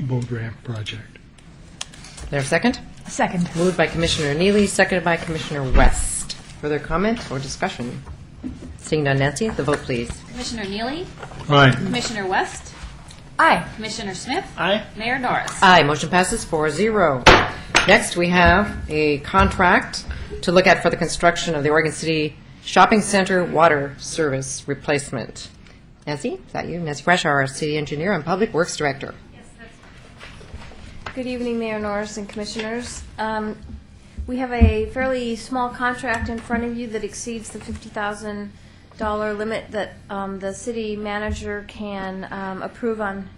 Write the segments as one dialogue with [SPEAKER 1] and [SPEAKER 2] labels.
[SPEAKER 1] Bull Ramp project.
[SPEAKER 2] There a second?
[SPEAKER 3] Second.
[SPEAKER 2] Moved by Commissioner Neely, seconded by Commissioner West. Further comment or discussion? Seeing none, Nancy, the vote, please.
[SPEAKER 4] Commissioner Neely,
[SPEAKER 1] Aye.
[SPEAKER 4] Commissioner West,
[SPEAKER 3] Aye.
[SPEAKER 4] Commissioner Smith,
[SPEAKER 5] Aye.
[SPEAKER 4] Mayor Norris.
[SPEAKER 2] Aye, motion passes 4-0. Next, we have a contract to look at for the construction of the Oregon City Shopping Center Water Service Replacement. Nancy, is that you? Nancy Brash, our city engineer and public works director.
[SPEAKER 6] Good evening, Mayor Norris and Commissioners. Um, We have a fairly small contract in front of you that exceeds the $50,000 limit that um, the city manager can um, approve on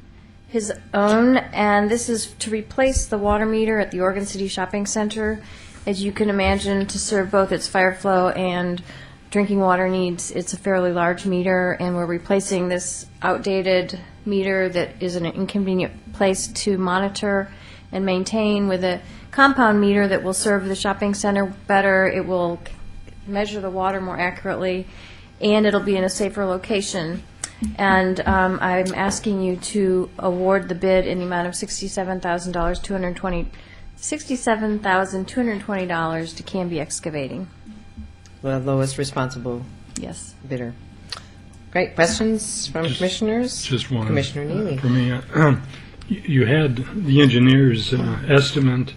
[SPEAKER 6] his own, and this is to replace the water meter at the Oregon City Shopping Center. As you can imagine, to serve both its fire flow and drinking water needs, it's a fairly large meter, and we're replacing this outdated meter that is an inconvenient place to monitor and maintain with a compound meter that will serve the shopping center better. It will measure the water more accurately, and it'll be in a safer location. And um, I'm asking you to award the bid in the amount of $67,220, two hundred twenty sixty-seven thousand two hundred twenty dollars to Canby Excavating.
[SPEAKER 2] The lowest responsible
[SPEAKER 6] Yes.
[SPEAKER 2] bidder. Great, questions from commissioners?
[SPEAKER 1] Just one.
[SPEAKER 2] Commissioner Neely.
[SPEAKER 1] For me, uh, you you had the engineer's uh, estimate.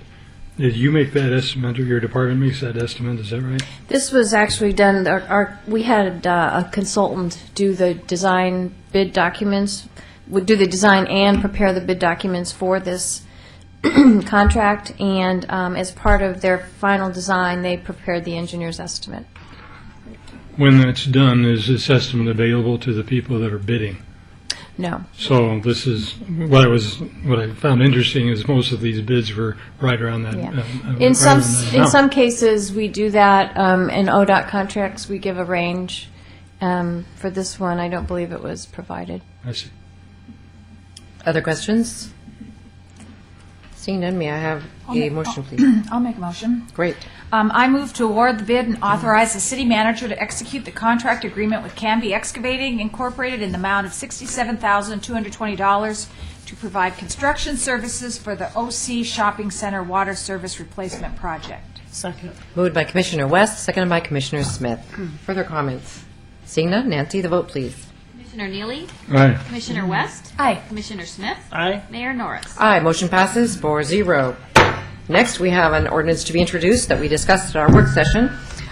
[SPEAKER 1] Did you make that estimate or your department makes that estimate? Is that right?
[SPEAKER 6] This was actually done, our- our, we had uh, a consultant do the design bid documents, would do the design and prepare the bid documents for this contract, and um, as part of their final design, they prepared the engineer's estimate.
[SPEAKER 1] When that's done, is this estimate available to the people that are bidding?
[SPEAKER 6] No.
[SPEAKER 1] So this is, what I was, what I found interesting is most of these bids were right around that.
[SPEAKER 6] Yeah.
[SPEAKER 1] uh, uh,
[SPEAKER 6] In
[SPEAKER 1] right
[SPEAKER 6] some,
[SPEAKER 1] around that
[SPEAKER 6] in
[SPEAKER 1] amount.
[SPEAKER 6] some cases, we do that. um, In ODOT contracts, we give a range. Um, For this one, I don't believe it was provided.
[SPEAKER 1] I see.
[SPEAKER 2] Other questions? Seeing none, may I have a
[SPEAKER 3] make-
[SPEAKER 2] motion, please?
[SPEAKER 3] I'll make a motion.
[SPEAKER 2] Great.
[SPEAKER 3] Um, I move to award the bid and authorize the city manager to execute the contract agreement with Canby Excavating Incorporated in the amount of $67,220 to provide construction services for the OC Shopping Center Water Service Replacement Project.
[SPEAKER 5] Second.
[SPEAKER 2] Moved by Commissioner West, seconded by Commissioner Smith.
[SPEAKER 3] Hmm.
[SPEAKER 2] Further comments? Seeing none, Nancy, the vote, please.
[SPEAKER 4] Commissioner Neely,
[SPEAKER 1] All right.
[SPEAKER 4] Commissioner West,
[SPEAKER 3] Aye.
[SPEAKER 4] Commissioner Smith,
[SPEAKER 5] Aye.
[SPEAKER 4] Mayor Norris.
[SPEAKER 2] Aye, motion passes 4-0. Next, we have an ordinance to be introduced that we discussed at our work session,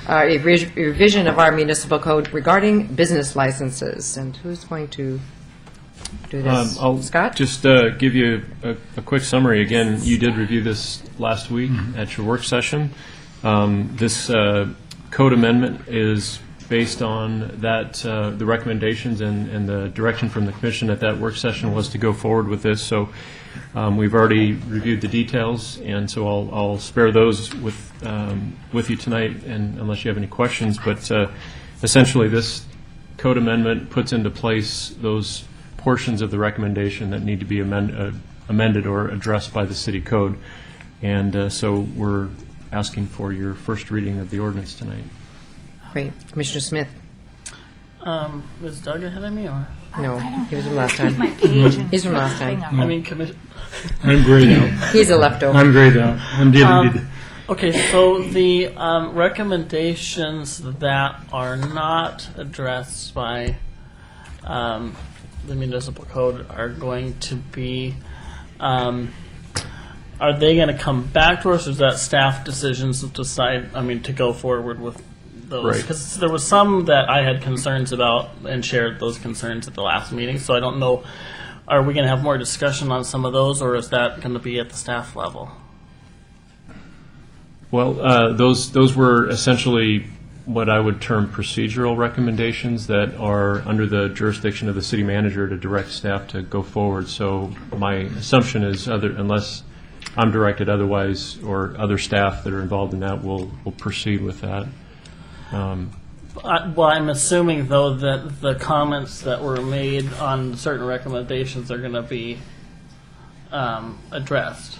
[SPEAKER 2] uh, a re- revision of our municipal code regarding business licenses. And who's going to do
[SPEAKER 7] Um,
[SPEAKER 2] this?
[SPEAKER 7] I'll
[SPEAKER 2] Scott?
[SPEAKER 7] just uh, give you a, a quick summary. Again, you did review this last week at your work session. Um, this uh, code amendment is based on that uh, the recommendations and, and the direction from the commission at that work session was to go forward with this. So um, we've already reviewed the details, and so I'll, I'll spare those with um, with you tonight, and unless you have any questions. But uh, essentially, this code amendment puts into place those portions of the recommendation that need to be amend- uh, amended or addressed by the city code. And uh, so we're asking for your first reading of the ordinance tonight.
[SPEAKER 2] Great. Commissioner Smith?
[SPEAKER 5] Um, was Doug ahead of me, or?
[SPEAKER 2] No, he was from last time.
[SPEAKER 3] My page and-
[SPEAKER 2] He's from last time.
[SPEAKER 5] I mean, commission.
[SPEAKER 1] I'm grayed out.
[SPEAKER 2] He's a leftover.
[SPEAKER 1] I'm grayed out.
[SPEAKER 6] Um,
[SPEAKER 1] I'm deleted.
[SPEAKER 5] Okay, so the um, recommendations that are not addressed by um, the municipal code are going to be, um, are they going to come back to us, or is that staff decisions to decide, I mean, to go forward with those?
[SPEAKER 7] Right.
[SPEAKER 5] Because there was some that I had concerns about and shared those concerns at the last meeting, so I don't know, are we going to have more discussion on some of those, or is that going to be at the staff level?
[SPEAKER 7] Well, uh, those, those were essentially what I would term procedural recommendations that are under the jurisdiction of the city manager to direct staff to go forward. So my assumption is other, unless I'm directed otherwise, or other staff that are involved in that will, will proceed with that.
[SPEAKER 5] I- Well, I'm assuming, though, that the comments that were made on certain recommendations are going to be um, addressed.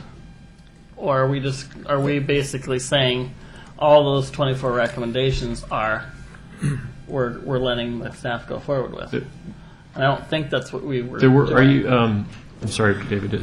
[SPEAKER 5] Or are we just, are we basically saying all those 24 recommendations are, we're, we're letting the staff go forward with?
[SPEAKER 7] There-
[SPEAKER 5] I don't think that's what we were.
[SPEAKER 7] There were, are
[SPEAKER 5] doing.
[SPEAKER 7] you, um, I'm sorry, David,